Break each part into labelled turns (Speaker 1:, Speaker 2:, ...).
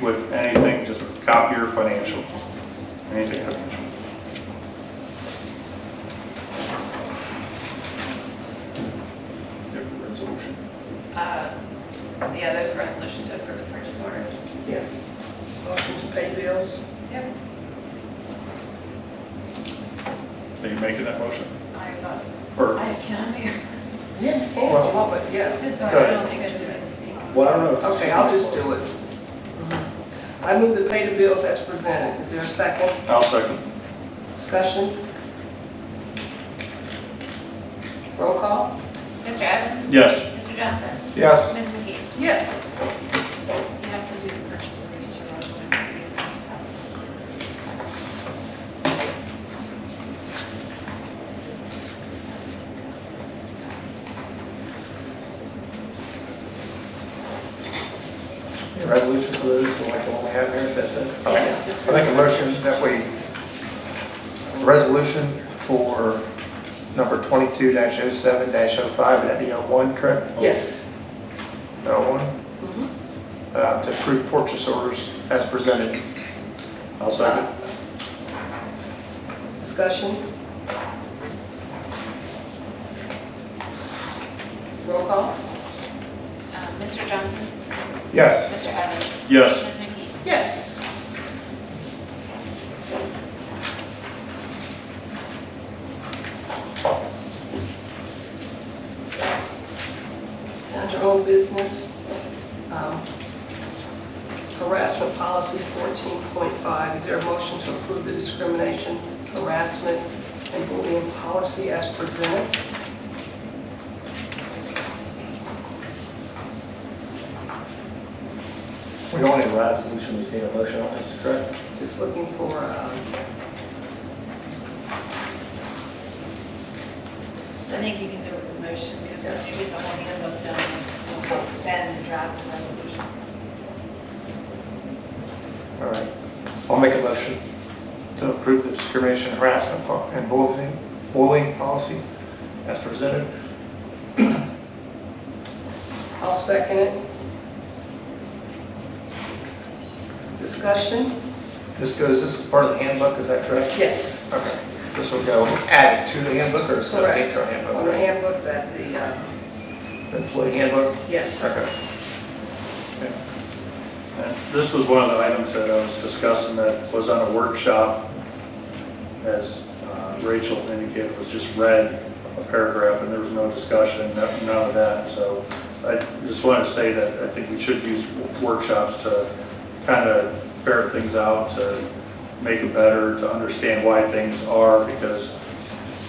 Speaker 1: with anything, just copier
Speaker 2: Uh,
Speaker 1: financial, anything financial. Different resolution.
Speaker 2: Uh, Yeah, there's a resolution to approve the purchase orders.
Speaker 3: Yes. Motion to pay bills?
Speaker 2: Yep.
Speaker 1: Are you making that motion?
Speaker 2: I thought,
Speaker 1: Or,
Speaker 2: I can, I
Speaker 3: Yeah, you can. if you want, but yeah.
Speaker 2: just going,
Speaker 1: Go
Speaker 2: I
Speaker 1: ahead.
Speaker 2: don't think I do anything.
Speaker 1: well, I don't know. if-
Speaker 3: Okay, I'll just do it. I move to pay the bills as presented. Is there a second
Speaker 1: I'll second.
Speaker 3: discussion? Roll call?
Speaker 2: Mr. Evans?
Speaker 1: Yes.
Speaker 2: Mr. Johnson?
Speaker 4: Yes.
Speaker 2: Ms. McKee?
Speaker 3: Yes.
Speaker 2: You have to do the purchase orders to our one
Speaker 4: Any Resolution for those, like the one we have here, that's it? I make a motion that we, resolution for number 22-07-05, would that be 01, correct?
Speaker 3: Yes.
Speaker 4: 01, uh, to approve purchase orders as presented.
Speaker 1: I'll second.
Speaker 3: Discussion? Roll call?
Speaker 2: Uh, Mr. Johnson?
Speaker 4: Yes.
Speaker 2: Mr. Evans?
Speaker 1: Yes.
Speaker 2: Ms. McKee?
Speaker 3: Yes. Under old business, um, harassment policy 14.5, is there a motion to approve the discrimination, harassment, and bullying policy as presented?
Speaker 4: We don't need a resolution, we just need a motion on this, correct?
Speaker 3: Just looking for, um,
Speaker 2: I think you can do it with a motion because if you get the whole handbook done, then draft the resolution.
Speaker 4: All right. I'll make a motion to approve the discrimination harassment po- and bullying, bullying policy as presented.
Speaker 3: I'll second it. Discussion?
Speaker 4: This goes, this is part of the handbook, is that correct?
Speaker 3: Yes.
Speaker 4: Okay, this will go added to the handbook or separate to our handbook?
Speaker 3: On the handbook that the, uh,
Speaker 4: Employee handbook?
Speaker 3: yes.
Speaker 4: Okay.
Speaker 1: And Uh, This was one of the items that I was discussing that was on a workshop, as uh, Rachel indicated, was just read a paragraph, and there was no discussion, no- none of that, so I just wanted to say that I think we should use workshops to kind of ferret things out, to make it better, to understand why things are, because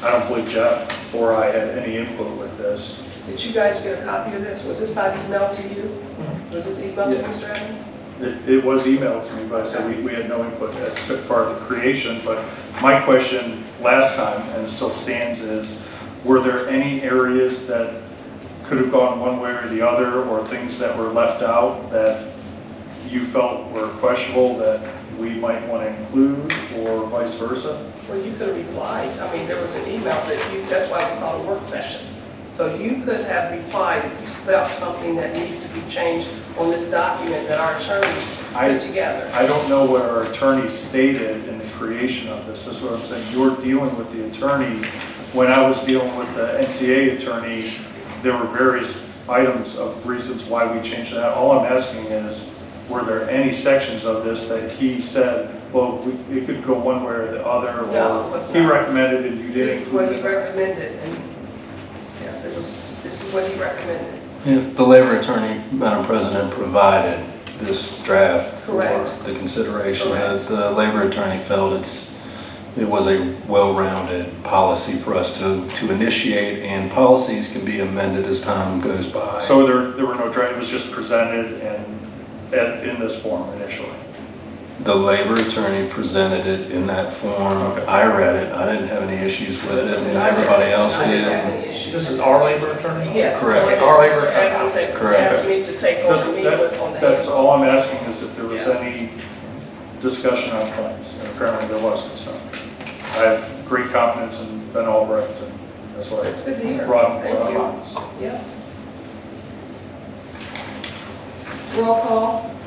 Speaker 1: I don't believe Jeff or I had any input with this.
Speaker 3: Did you guys get a copy of this? Was this not emailed to you?
Speaker 1: Mm-hmm.
Speaker 3: Was this emailed to
Speaker 1: Yeah.
Speaker 3: Mr. Evans?
Speaker 1: It, it was emailed to me, but I said we, we had no input as to part of the creation, but my question last time, and it still stands, is were there any areas that could have gone one way or the other, or things that were left out that you felt were questionable that we might want to include, or vice versa?
Speaker 3: Well, you could have replied. I mean, there was an email that you, that's why it's called a work session. So you could have replied if you felt something that needed to be changed on this document that our attorneys
Speaker 1: I-
Speaker 3: put together.
Speaker 1: I don't know what our attorney stated in the creation of this, that's what I'm saying, you're dealing with the attorney. When I was dealing with the NCA attorney, there were various items of reasons why we changed that. All I'm asking is, were there any sections of this that he said, well, we- it could go one way or the other? or
Speaker 3: No, it was
Speaker 1: He
Speaker 3: not.
Speaker 1: recommended and you didn't
Speaker 3: This is what
Speaker 1: include
Speaker 3: he
Speaker 1: it?
Speaker 3: recommended, and, yeah, it was, this is what he recommended.
Speaker 5: Yeah, The labor attorney, Madam President, provided this draft for
Speaker 3: Correct.
Speaker 5: the consideration.
Speaker 3: Correct.
Speaker 5: The the labor attorney felt it's, it was a well-rounded policy for us to, to initiate, and policies can be amended as time goes by.
Speaker 1: So there, there were no, dra- it was just presented and, and in this form initially?
Speaker 5: The labor attorney presented it in that form.
Speaker 1: Okay.
Speaker 5: I read it, I didn't have any issues with it, and everybody else
Speaker 3: I didn't have
Speaker 5: did.
Speaker 3: any issues.
Speaker 4: This is our labor attorney?
Speaker 3: Yes.
Speaker 5: Correct.
Speaker 3: Correct.
Speaker 4: Our labor-
Speaker 3: Evans had
Speaker 5: Correct.
Speaker 3: asked me to take
Speaker 1: That's,
Speaker 3: over me with on
Speaker 1: that-
Speaker 3: the.
Speaker 1: that's all I'm asking is if there was
Speaker 3: Yeah.
Speaker 1: any discussion on claims, and apparently there wasn't, so. I have great confidence in Ben Albrecht, and that's why
Speaker 3: That's
Speaker 1: I
Speaker 3: good to hear.
Speaker 1: brought him
Speaker 3: Thank
Speaker 1: brought him
Speaker 3: you.
Speaker 1: on. so.
Speaker 3: Yeah. Roll call?